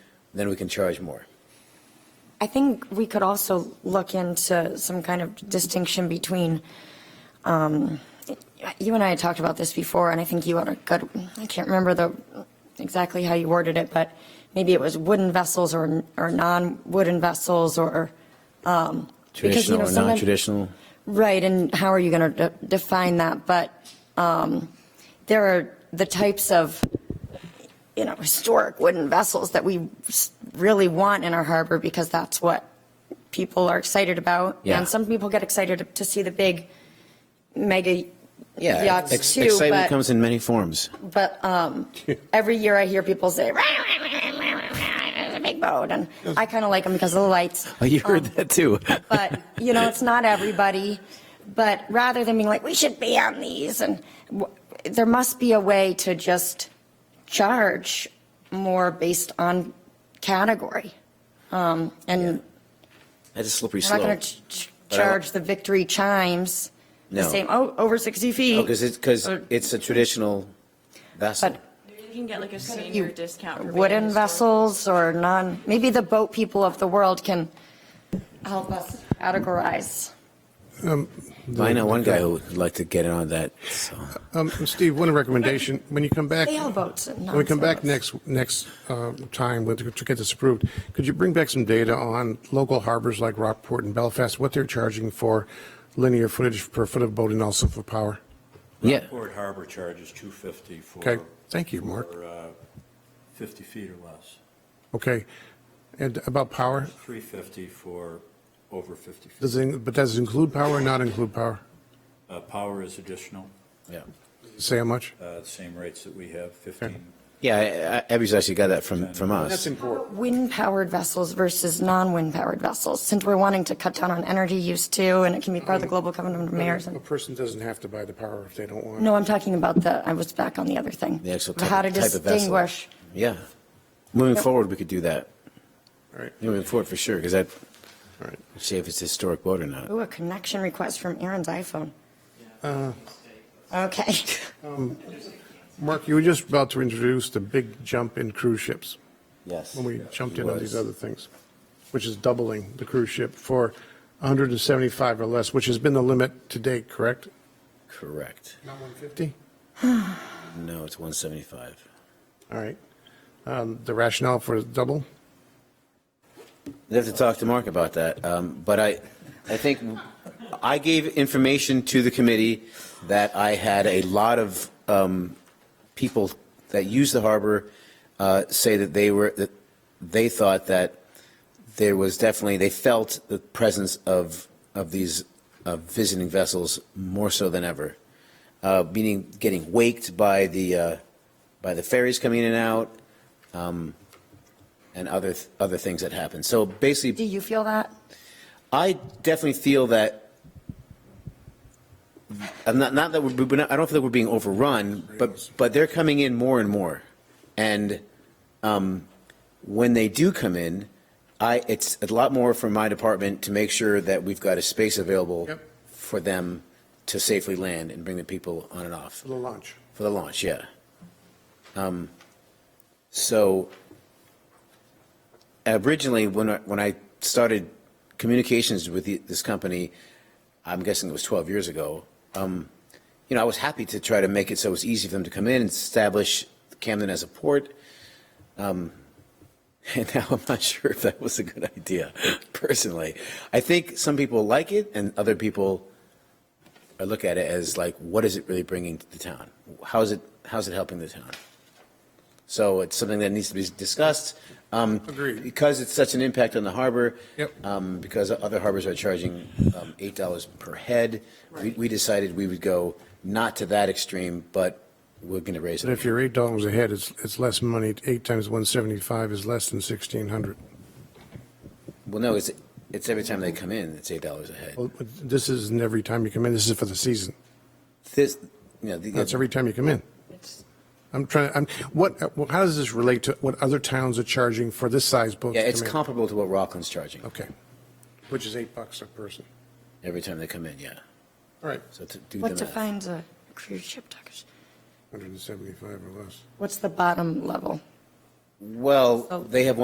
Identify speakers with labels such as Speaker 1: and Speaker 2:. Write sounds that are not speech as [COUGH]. Speaker 1: then we can charge more.
Speaker 2: I think we could also look into some kind of distinction between, um, you and I had talked about this before, and I think you had a good, I can't remember the, exactly how you worded it, but maybe it was wooden vessels or, or non-wooden vessels or, um, because, you
Speaker 1: Traditional
Speaker 2: know,
Speaker 1: or
Speaker 2: sometimes-
Speaker 1: non-traditional?
Speaker 2: Right, and how are you going to define that? But um, there are the types of, you know, historic wooden vessels that we s- really want in our harbor because that's what people are excited about.
Speaker 1: Yeah.
Speaker 2: And some people get excited to- to see the big mega
Speaker 1: Yeah,
Speaker 2: yachts
Speaker 1: ex-
Speaker 2: too.
Speaker 1: excitement
Speaker 2: but-
Speaker 1: comes in many forms. [LAUGHS]
Speaker 2: But um, every year I hear people say, [LAUGHS] it's a big boat. And I kind of like them because of the lights
Speaker 1: Oh, you heard that too.
Speaker 2: Um, [LAUGHS]
Speaker 1: [LAUGHS]
Speaker 2: but you know it's not everybody but rather than being like we should be on these and w- there must be a way to just charge more based on category um, and
Speaker 1: That's a slippery
Speaker 2: we're not going
Speaker 1: slope.
Speaker 2: to ch-
Speaker 1: But I-
Speaker 2: charge the victory chimes the
Speaker 1: No.
Speaker 2: same oh over 60 feet
Speaker 1: Oh, because it's, because
Speaker 2: Or-
Speaker 1: it's a traditional vessel.
Speaker 2: but
Speaker 3: You can get like a senior
Speaker 2: you
Speaker 3: discount. for being
Speaker 2: wooden
Speaker 3: historic.
Speaker 2: vessels or non maybe the boat people of the world can help us categorize
Speaker 1: I know one guy who would like to get in on that, so.
Speaker 4: Um, Steve, one recommendation, when you come back,
Speaker 2: sail boats and
Speaker 4: when we come back
Speaker 2: non-sailboats.
Speaker 4: next, next uh, time with- to get this approved, could you bring back some data on local harbors like Rockport and Belfast, what they're charging for linear footage per foot of boat and also for power?
Speaker 1: Yeah,
Speaker 5: Port Harbor charges 250 for.
Speaker 4: Okay, thank you, Mark.
Speaker 5: for, uh, 50 feet or less,
Speaker 4: Okay, and about power,
Speaker 5: 350 for over 50 feet.
Speaker 4: does it, but does it include power or not include power?
Speaker 5: Uh, Power is additional,
Speaker 1: yeah.
Speaker 4: Say how much?
Speaker 5: uh, same rates that we have, 15.
Speaker 1: Yeah, I- I- Abby's actually got that from, from us.
Speaker 4: important.
Speaker 2: wind-powered vessels versus non-wind-powered vessels, since we're wanting to cut down on energy use too, and it can be part of the global covenant of mayors.
Speaker 4: A
Speaker 2: and-
Speaker 4: person doesn't have to buy the power if they don't want.
Speaker 2: No, I'm talking about the, I was back on the other thing.
Speaker 1: The actual type
Speaker 2: How to
Speaker 1: of type of vessel.
Speaker 2: distinguish.
Speaker 1: Yeah. Moving
Speaker 2: Yep.
Speaker 1: forward, we could do that.
Speaker 4: All right,
Speaker 1: Moving forward, for sure, because I'd
Speaker 4: all right.
Speaker 1: see if it's a historic boat or not.
Speaker 2: Ooh, a connection request from Aaron's iPhone.
Speaker 4: Uh,
Speaker 1: [LAUGHS]
Speaker 2: Okay.
Speaker 4: Um, Mark, you were just about to introduce the big jump in cruise ships
Speaker 1: Yes.
Speaker 4: when we jumped in on these
Speaker 1: Was.
Speaker 4: other things, which is doubling the cruise ship for 175 or less, which has been the limit to date, correct?
Speaker 1: Correct.
Speaker 4: Not 150?
Speaker 1: No, it's 175.
Speaker 4: All right. Um, The rationale for double?
Speaker 1: I'd have to talk to Mark about that. Um, But I, I think I gave information to the committee that I had a lot of um, people that use the harbor uh, say that they were, that they thought that there was definitely, they felt the presence of, of these uh, visiting vessels more so than ever. Uh, Meaning getting waked by the, uh, by the ferries coming in and out um, and other, th- other things that happen. So basically.
Speaker 2: Do you feel that?
Speaker 1: I definitely feel that, I'm not, not that we're, we're not- I don't feel that we're being overrun, but, but they're coming in more and more. And um, when they do come in, I, it's a lot more for my department to make sure that we've got a space available
Speaker 4: Yep.
Speaker 1: for them to safely land and bring the people on and off.
Speaker 4: The launch.
Speaker 1: For the launch, yeah. Um, So originally, when I, when I started communications with the- this company, I'm guessing it was 12 years ago, um, you know, I was happy to try to make it so it was easy for them to come in and establish Camden as a port. Um, [LAUGHS] And now I'm not sure if that was a good idea, [LAUGHS] personally. I think some people like it and other people I look at it as like, what is it really bringing to the town? How is it, how's it helping the town? So it's something that needs to be discussed. um,
Speaker 4: Agreed.
Speaker 1: Because it's such an impact on the harbor.
Speaker 4: Yep.
Speaker 1: um, Because other harbors are charging um, $8 per head. We- We decided we would go not to that extreme, but we're going to raise
Speaker 4: But if
Speaker 1: it.
Speaker 4: you're $8 a head, it's, it's less money. Eight times 175 is less than 1,600.
Speaker 1: Well, no, it's, it's every time they come in, it's $8 a head.
Speaker 4: Well, but This isn't every time you come in, this is for the season.
Speaker 1: This, you know, the-
Speaker 4: That's every time you come in. I'm trying, I'm, what, well, how does this relate to what other towns are charging for this size boat? to
Speaker 1: yeah, it's
Speaker 4: come in?
Speaker 1: comparable to what Rockland's charging
Speaker 4: Okay. Which is eight bucks a person.
Speaker 1: every time they come in, yeah.
Speaker 4: All right,
Speaker 1: So to do the
Speaker 2: What
Speaker 1: math.
Speaker 2: defines a cruise ship, Tuckers?
Speaker 4: 175 or less.
Speaker 2: What's the bottom level?
Speaker 1: Well, they have